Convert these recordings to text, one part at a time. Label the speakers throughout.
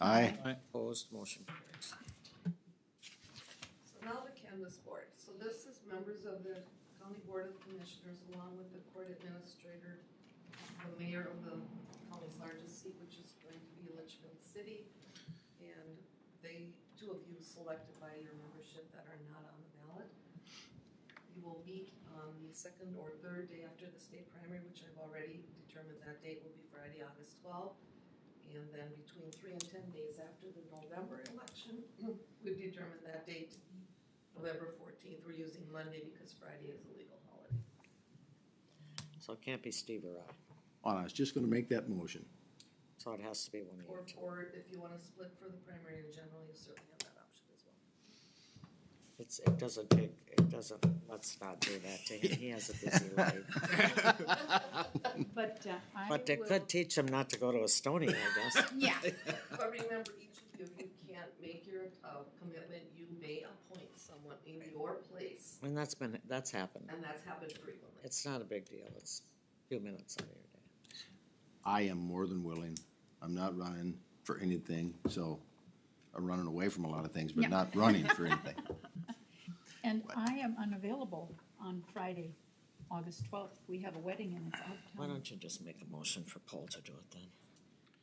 Speaker 1: Aye.
Speaker 2: Opposed, motion carries.
Speaker 3: So now the canvas board, so this is members of the county board of commissioners along with the court administrator, the mayor of the county's largest seat, which is going to be Litchfield City. And they, two of you selected by your membership that are not on the ballot. You will meet on the second or third day after the state primary, which I've already determined that date will be Friday, August twelfth. And then between three and ten days after the November election, We've determined that date, November fourteenth, we're using Monday because Friday is a legal holiday.
Speaker 2: So it can't be Steve or I,
Speaker 1: Well, I was just gonna make that motion.
Speaker 2: so it has to be one of
Speaker 3: Or,
Speaker 2: you two.
Speaker 3: or if you wanna split for the primary in general, you certainly have that option as well.
Speaker 2: It's, it doesn't take, it doesn't, let's not do that to him, he has a busy life.
Speaker 4: But uh, I
Speaker 2: But it could
Speaker 4: will,
Speaker 2: teach him not to go to Estonia, I guess.
Speaker 4: yeah,
Speaker 3: But remember, each of you, you can't make your, uh, commitment, you may appoint someone in your place,
Speaker 2: And that's been, that's happened.
Speaker 3: and that's happened frequently.
Speaker 2: It's not a big deal, it's a few minutes out of your day.
Speaker 1: I am more than willing. I'm not running for anything, so I'm running away from a lot of things, but
Speaker 4: Yeah.
Speaker 1: not running for anything.
Speaker 4: and I am unavailable on Friday, August twelfth. We have a wedding and it's
Speaker 2: Why
Speaker 4: out of town.
Speaker 2: don't you just make a motion for Paul to do it then?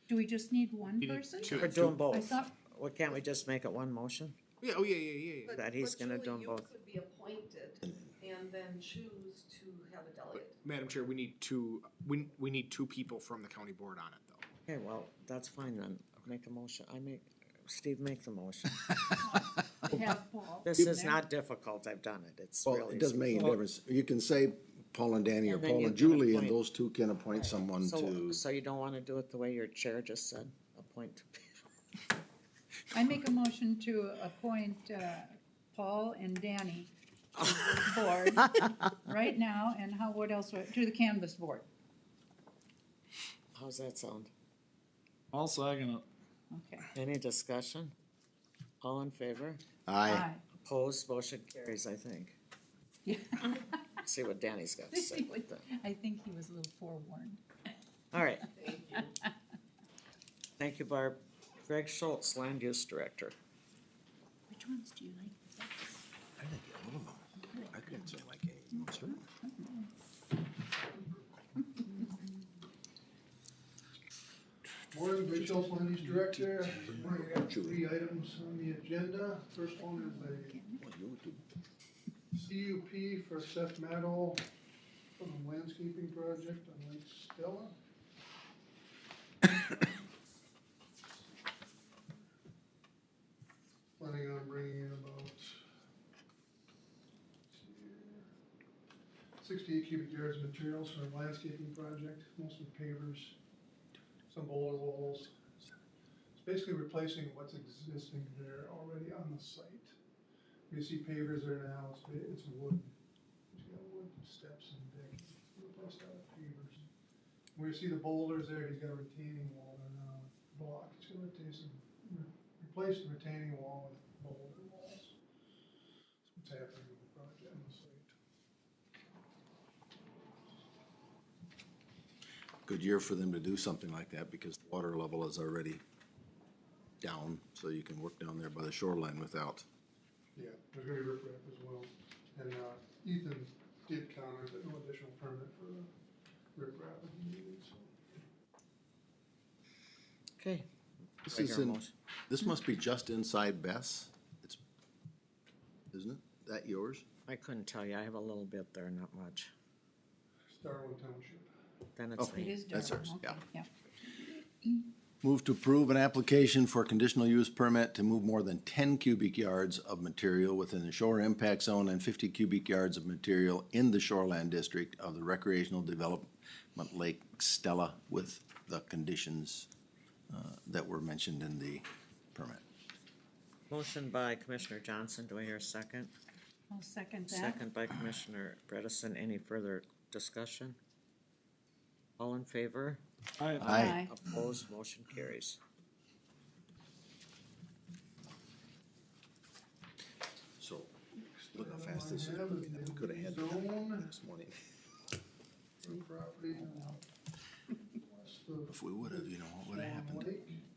Speaker 4: Do we just need one person?
Speaker 2: We're doing
Speaker 4: I
Speaker 2: both.
Speaker 4: thought,
Speaker 2: Well, can't we just make it one motion?
Speaker 5: Yeah, oh, yeah, yeah, yeah, yeah.
Speaker 3: But-
Speaker 2: That he's
Speaker 3: but
Speaker 2: gonna
Speaker 3: Julie,
Speaker 2: do 'em both.
Speaker 3: You could be appointed and then choose to have a delegate.
Speaker 5: Madam Chair, we need two, we, we need two people from the county board on it, though.
Speaker 2: Okay, well, that's fine then, make a motion, I make, Steve, make the motion.
Speaker 4: we have Paul.
Speaker 2: This
Speaker 4: in
Speaker 2: is
Speaker 4: there.
Speaker 2: not difficult, I've done it, it's really.
Speaker 1: Well, it doesn't make any
Speaker 2: simple.
Speaker 1: difference. You can say Paul and Danny or
Speaker 2: And then
Speaker 1: Paul
Speaker 2: you
Speaker 1: and
Speaker 2: can
Speaker 1: Julie, and
Speaker 2: appoint-
Speaker 1: those two can appoint someone
Speaker 2: So,
Speaker 1: to,
Speaker 2: so you don't wanna do it the way your chair just said, appoint two people?
Speaker 4: I make a motion to appoint uh, Paul and Danny to the board right now, and how, what else, would- to the canvas board.
Speaker 2: How's that sound?
Speaker 6: I'll second it.
Speaker 4: Okay.
Speaker 2: Any discussion? All in favor?
Speaker 1: aye.
Speaker 4: Aye.
Speaker 2: Opposed, motion carries, I think.
Speaker 4: Yeah.
Speaker 2: See what Danny's got to say.
Speaker 4: I think he was a little forewarned.
Speaker 2: All right,
Speaker 3: Thank you.
Speaker 2: thank you, Barb. Greg Schultz, Land Use Director.
Speaker 4: Which ones do you like?
Speaker 1: I think I don't know. I couldn't say like any, sir.
Speaker 7: Morning, Big Hills Land Use Director. Morning, I got three items on the agenda. First one is
Speaker 1: Well, you would do
Speaker 7: a CUP for Seth Meadow for the landscaping project on Lake Stella. Planning on bringing in about sixty-eight cubic yards of materials for a landscaping project, mostly pavers, some boulder walls, it's basically replacing what's existing there already on the site. You see pavers there now, it's, it's wood. It's got wood steps and deck, replaced out with pavers. Where you see the boulders there, he's got a retaining wall there now, with block, he's gonna retain some, re- replace the retaining wall with boulder walls. That's what's happening with the project on the site.
Speaker 1: good year for them to do something like that because the water level is already down, so you can work down there by the shoreline without.
Speaker 7: Yeah, there's gonna be riprap as well, and, uh, Ethan did comment that no additional permit for the riprap would be needed, so.
Speaker 2: Okay.
Speaker 1: This
Speaker 2: Greg,
Speaker 1: is
Speaker 2: your
Speaker 1: in,
Speaker 2: motion.
Speaker 1: this must be just inside Bess. It's, isn't it? That yours?
Speaker 2: I couldn't tell you, I have a little bit there, not much.
Speaker 7: Starling Township.
Speaker 2: Then it's
Speaker 1: Oh.
Speaker 4: It
Speaker 2: me.
Speaker 4: is
Speaker 1: That's
Speaker 4: Durham,
Speaker 1: ours,
Speaker 4: okay,
Speaker 1: yeah.
Speaker 4: yeah.
Speaker 1: Move to approve an application for a conditional use permit to move more than ten cubic yards of material within the shore impact zone and fifty cubic yards of material in the shoreland district of the recreational development Lake Stella with the conditions uh, that were mentioned in the permit.
Speaker 2: Motion by Commissioner Johnson, do I hear a second?
Speaker 4: I'll second that.
Speaker 2: Second by Commissioner Bredesen, any further discussion? All in favor?
Speaker 6: I,
Speaker 1: Aye.
Speaker 2: Opposed, motion carries.
Speaker 1: So, look how fast this is, I mean, we could have had that this morning.
Speaker 7: Own property, uh, west of
Speaker 1: If we would have, you know, what would have
Speaker 7: Swan
Speaker 1: happened?
Speaker 7: Lake.